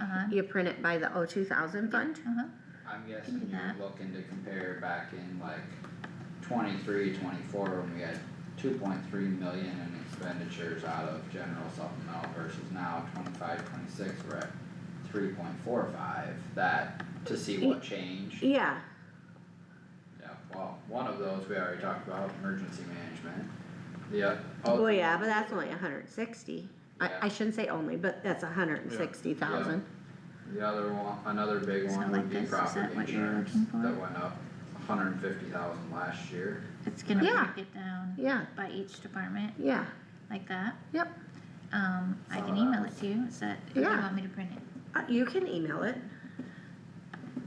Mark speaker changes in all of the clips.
Speaker 1: Uh-huh.
Speaker 2: you print it by the O two thousand fund?
Speaker 1: Uh-huh,
Speaker 3: I'm guessing you're
Speaker 1: that.
Speaker 3: looking to compare back in like twenty-three, twenty-four, when we had two point three million in expenditures out of general supplemental versus now twenty-five, twenty-six, we're at three point four five, that, to see what changed.
Speaker 2: Yeah,
Speaker 3: Yeah, well, one of those we already talked about, emergency management, the, oth- oh.
Speaker 2: well, yeah, but that's only hundred and sixty. I,
Speaker 3: Yeah.
Speaker 2: I shouldn't say only, but that's hundred and sixty thousand.
Speaker 3: The other one, another big
Speaker 1: Is it
Speaker 3: one
Speaker 1: like
Speaker 3: would be
Speaker 1: this? Is that
Speaker 3: property
Speaker 1: what you're
Speaker 3: insurance,
Speaker 1: looking for?
Speaker 3: that went up hundred and fifty thousand last year.
Speaker 1: it's gonna
Speaker 2: Yeah.
Speaker 1: break it down
Speaker 2: Yeah,
Speaker 1: by each department
Speaker 2: yeah,
Speaker 1: like that.
Speaker 2: Yep.
Speaker 1: Um, I can
Speaker 3: Saw
Speaker 1: email
Speaker 3: that.
Speaker 1: it to you, is that, if you
Speaker 2: Yeah.
Speaker 1: want me to print it?
Speaker 2: uh, you can email it.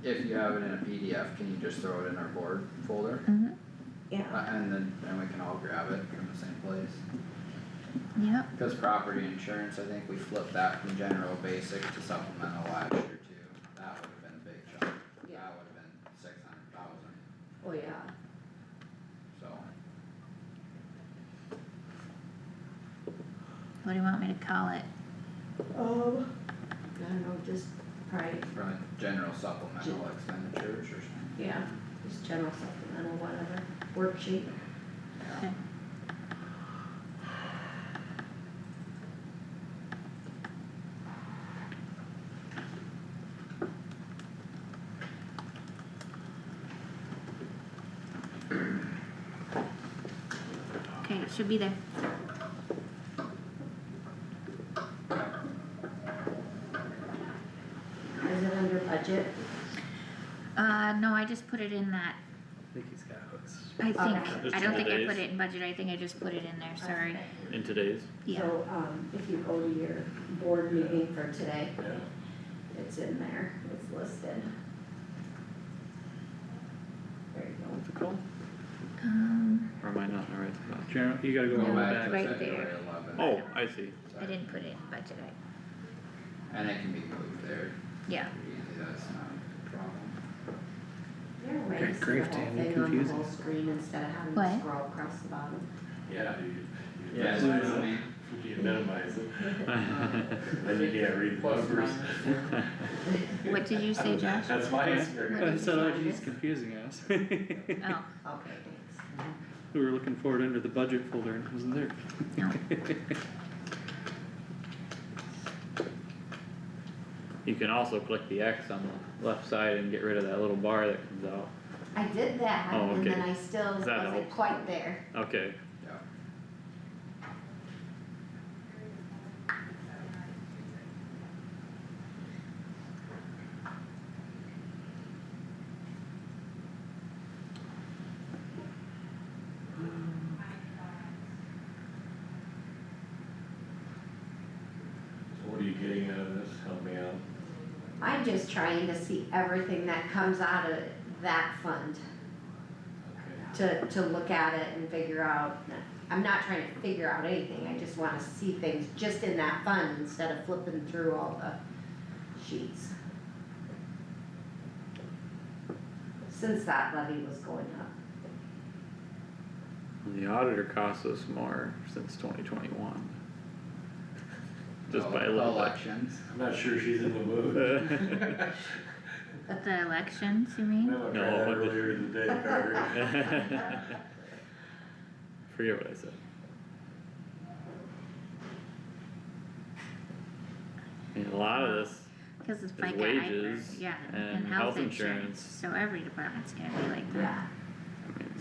Speaker 3: If you have it in a PDF, can you just throw it in our board folder?
Speaker 1: Mm-hmm.
Speaker 3: Uh, and then, then we can all grab it from the same place.
Speaker 1: Yep,
Speaker 3: Cause property insurance, I think we flipped that from general basic to supplemental last year too. That would've been a big chunk.
Speaker 2: Yeah.
Speaker 3: That would've been six hundred thousand,
Speaker 2: Oh, yeah.
Speaker 3: so.
Speaker 1: what do you want me to call it?
Speaker 2: Oh.
Speaker 4: Um, I don't know, just probably,
Speaker 3: From general supplemental expenditures or something.
Speaker 4: yeah, just general supplemental, whatever, worksheet.
Speaker 3: Yeah.
Speaker 1: Okay. Okay, it should be there.
Speaker 4: Is it under budget?
Speaker 1: Uh, no, I just put it in that,
Speaker 5: I think he's got it.
Speaker 1: I
Speaker 4: Okay.
Speaker 1: think, I don't think I
Speaker 5: Just
Speaker 1: put
Speaker 5: days.
Speaker 1: it in budget, I think I just put it in there, sorry,
Speaker 5: In today's?
Speaker 1: yeah.
Speaker 4: So, um, if you go to your board meeting for today, it's in there, it's listed. There you go.
Speaker 5: What's it called?
Speaker 1: Um,
Speaker 5: Or am I not in the right spot? General, you gotta go
Speaker 3: Go
Speaker 5: all the way
Speaker 3: back
Speaker 5: back.
Speaker 3: to
Speaker 1: Right
Speaker 3: February
Speaker 1: there.
Speaker 3: eleven.
Speaker 5: Oh, I see.
Speaker 1: I didn't put it in budget, I,
Speaker 3: And it can be moved there,
Speaker 1: yeah,
Speaker 3: pretty easy, that's not a problem.
Speaker 4: There are
Speaker 5: Good
Speaker 4: ways to
Speaker 5: grief,
Speaker 4: the whole
Speaker 5: Dan, you're
Speaker 4: thing on the
Speaker 5: confusing
Speaker 4: whole screen instead of having
Speaker 1: What?
Speaker 4: to scroll across the bottom.
Speaker 6: Yeah, you, you
Speaker 3: Yeah,
Speaker 6: minimize
Speaker 3: so I mean,
Speaker 6: it, you minimize it, then you can't read the
Speaker 3: Plus
Speaker 6: numbers.
Speaker 1: what did you say, Josh?
Speaker 6: That's my
Speaker 5: I
Speaker 6: experience.
Speaker 5: said, oh geez, confusing us. We
Speaker 1: Oh,
Speaker 4: Okay, thanks.
Speaker 5: were looking for it under the budget folder and it wasn't there.
Speaker 1: no,
Speaker 7: You can also click the X on the left side and get rid of that little bar that comes out.
Speaker 4: I did that,
Speaker 7: Oh,
Speaker 4: and then
Speaker 7: okay.
Speaker 4: I still
Speaker 7: That
Speaker 4: wasn't
Speaker 7: helps.
Speaker 4: quite there.
Speaker 7: Okay,
Speaker 3: yeah.
Speaker 6: So what are you getting out of this? Help me out.
Speaker 4: I'm just trying to see everything that comes out of that fund,
Speaker 6: Okay.
Speaker 4: to, to look at it and figure out. I'm not trying to figure out anything, I just wanna see things just in that fund instead of flipping through all the sheets. Since that levy was going up.
Speaker 7: the auditor cost us more since twenty twenty-one. Just by a little bit.
Speaker 3: Elections.
Speaker 6: I'm not sure she's in the mood.
Speaker 1: but the elections, you mean?
Speaker 6: No, I tried
Speaker 7: No,
Speaker 6: that
Speaker 7: but-
Speaker 6: earlier in the day, Carter.
Speaker 7: Forget what I said. I mean, a lot of this,
Speaker 1: Cause it's FICA, IFRS,
Speaker 7: wages
Speaker 1: yeah, and
Speaker 7: and
Speaker 1: health
Speaker 7: health
Speaker 1: insurance,
Speaker 7: insurance.
Speaker 1: so every department's gonna be like that.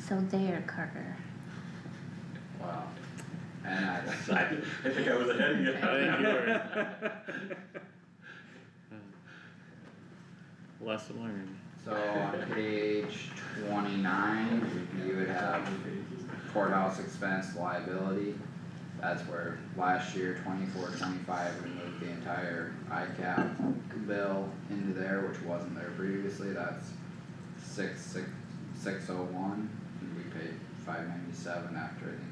Speaker 1: So there, Carter.
Speaker 3: Wow. And I,
Speaker 6: I I think I was ahead of you.
Speaker 7: I think you were. Lesson learned.
Speaker 3: so on page twenty-nine, you would have courthouse expense liability. That's where last year, twenty-four, twenty-five, we moved the entire ICAP bill into there, which wasn't there previously, that's six, six, six oh one. And we paid five ninety-seven after, I think.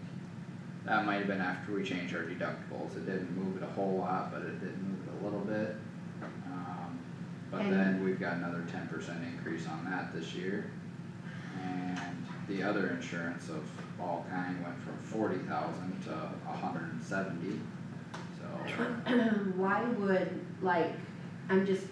Speaker 3: That might have been after we changed our deductibles, it didn't move it a whole lot, but it did move it a little bit. Um, but
Speaker 4: And-
Speaker 3: then we've got another ten percent increase on that this year. And the other insurance of all kind went from forty thousand to a hundred and seventy, so.
Speaker 4: Why would like I'm just